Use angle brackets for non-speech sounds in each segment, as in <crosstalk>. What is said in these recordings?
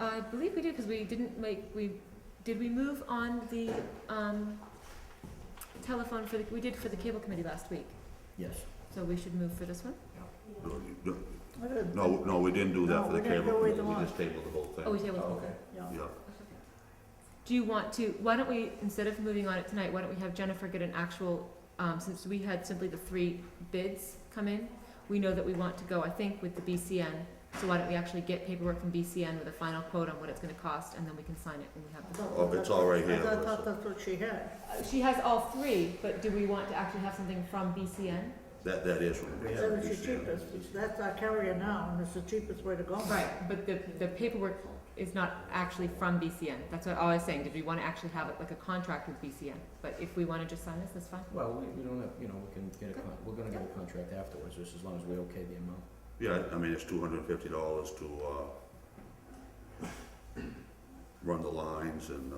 I believe we did, because we didn't make, we, did we move on the, um, telephone for the, we did for the cable committee last week, Yes. so we should move for this one? No, you- no, No, no, we didn't do that for the No, we're gonna cable go with committee, the we one. just tabled the whole thing. Oh, we tabled the whole Okay. thing. Yeah. Yeah, Do you want to, why don't we, instead of moving on it tonight, why don't we have Jennifer get an actual, um, since we had simply the three bids come in, we know that we want to go, I think, with the BCN, so why don't we actually get paperwork from BCN with a final quote on what it's gonna cost, and then we can sign it when we have the. Oh, it's all right here, I thought- Melissa. thought that's what she had. Uh, She has all three, but do we want to actually have something from BCN? that, that is what we Yeah, That have. was the cheapest, that's our carrier now, and it's the cheapest way to go. Right, but the, the paperwork is not actually from BCN, that's what I was saying, did we wanna actually have it like a contract with BCN? But if we wanna just sign this, that's fine. Well, we, we don't have, you know, we can get a con, we're gonna get a contract afterwards, just as long as we okay the amount. Yeah, I mean, it's two hundred and fifty dollars to, uh, run the lines and, uh,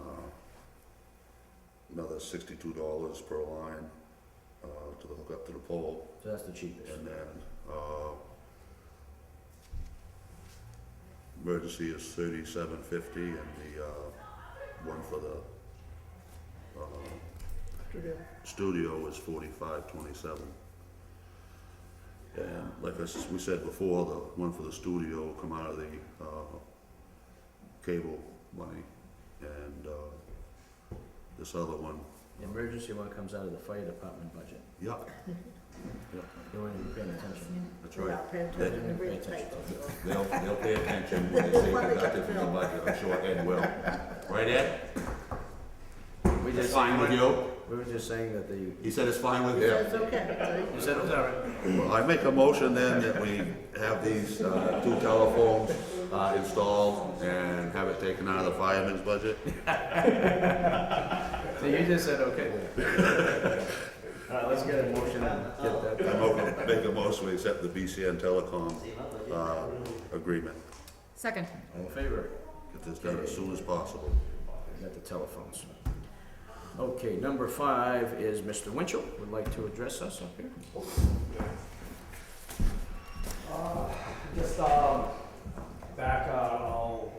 another sixty-two dollars per line, uh, to hook up to the pole. So that's the cheapest. And then, uh, emergency is thirty-seven fifty and the, uh, one for the, uh, To do. studio is forty-five twenty-seven. And like I, s- we said before, the one for the studio will come out of the, uh, cable money. And, uh, this other one, The emergency one comes out of the fire department budget. yeah, They weren't even paying attention. that's We right. are paying attention to They didn't real pay estate. attention. They'll, they'll pay attention when they say deducted from the budget, I'm sure Ed will. Right, Ed? We It's just, fine with you? we were just saying that the, He said it's fine with That's okay, you said it was all right. Well, I make a motion then that we have these, uh, two telephones, uh, installed and have it taken out of the fireman's budget. So you just said okay then. <laughs> All right, let's get a motion and get that I done. mo- make a motion to accept the BCN Telecom, uh, agreement. Second, All in favor? Get this done as soon as possible. We got the telephones. Okay, number five is Mr. Winchell would like to address us up here. Uh, Just, um, back, uh, I don't know,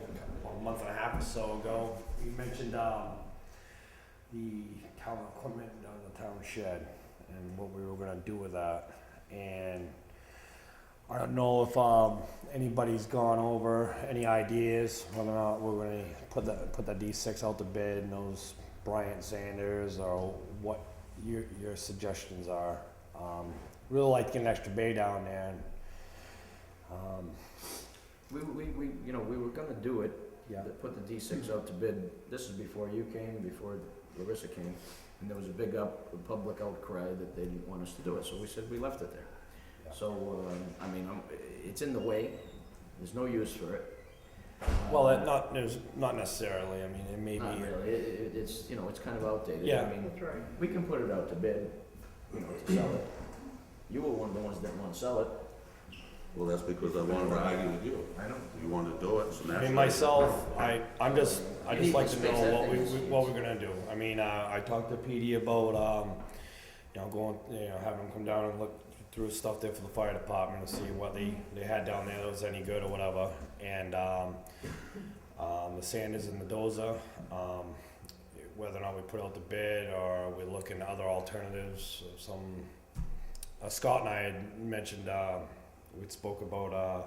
a month and a half or so ago, you mentioned, um, the town equipment down in the town shed and what we were gonna do with that. And I don't know if, um, anybody's gone over any ideas, whether or not we're gonna put the, put the D six out to bid and those Bryant Sanders or what your, your suggestions are. Um, really like to get an extra bay down there and um, We, we, we, you know, we were gonna do it, yeah. that put the D six out to bid, this is before you came, before Larissa came, and there was a big up, public outcry that they didn't want us to do it, so we said we left it there. Yeah. So, um, I mean, I'm, it's in the way, there's no use for it. Well, Um, it not there's not necessarily. I mean, it may Not be. really, it, it- it's, you know, it's kind of outdated, I Yeah. mean, that's right. we can put it out to bid, you know, to sell it. You were one of the ones that didn't wanna sell it. Well, that's because I wanted to argue with you. I know. You wanna do it, so I mean, naturally. myself, I I'm just I You just need like to to space know that what we, thing. we what we're gonna do. I mean, uh, I talked to PD about um, you know, going you know having them come down and look through stuff there for the fire department to see what they they had down there that was any good or whatever. And um, um, the Sanders and the Dozer, um, whether or not we put out the bid or we look into other alternatives. Some uh, Scott and I had mentioned uh, we spoke about uh,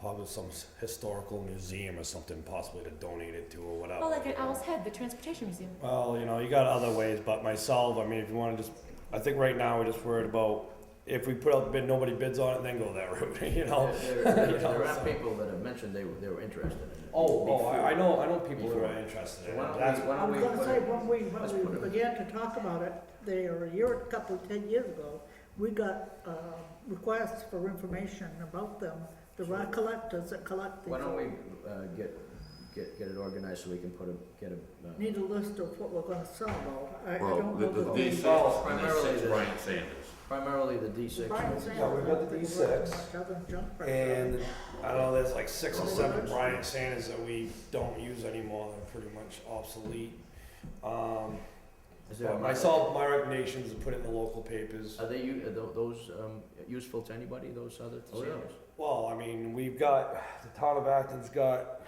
probably some s- historical museum or something possibly to donate it to or whatever. well, like an Owl's Head, the transportation museum. Well, you know, you got other ways, but myself, I mean, if you want to just, I think right now we're just worried about if we put out the bid, nobody bids on it, then go that <laughs> route, you know? There, there- <laughs> You know, there are so- people that have mentioned they were, they were interested in it. Oh, oh, I, I know, I know people who Before. are interested in Why don't it. we- That's, why I don't was we gonna put say, it- when we, let's when we put it- began to talk about it, there, a year, a couple, ten years ago, we got, uh, requests for information about them. There are collectors that collect these. Why don't we, uh, get, get, get it organized so we can put a, get a, uh, Need a list of what we're gonna sell though. I, I Well, don't the, know the that D we- six, Oh, and the primarily six the- Brian Sanders. primarily the D six. Brian Sanders. Yeah, we've got the D6, Doesn't jump right and there. I know there's like six or seven Bryant Sanders that we don't use anymore, they're pretty much obsolete. Um, Is there a but market? myself, my recommendation is to put it in the local papers. Are they, u- are tho- those, um, useful to anybody, those other Oh, yeah. sandals? Well, I mean, we've got, the town of Acton's got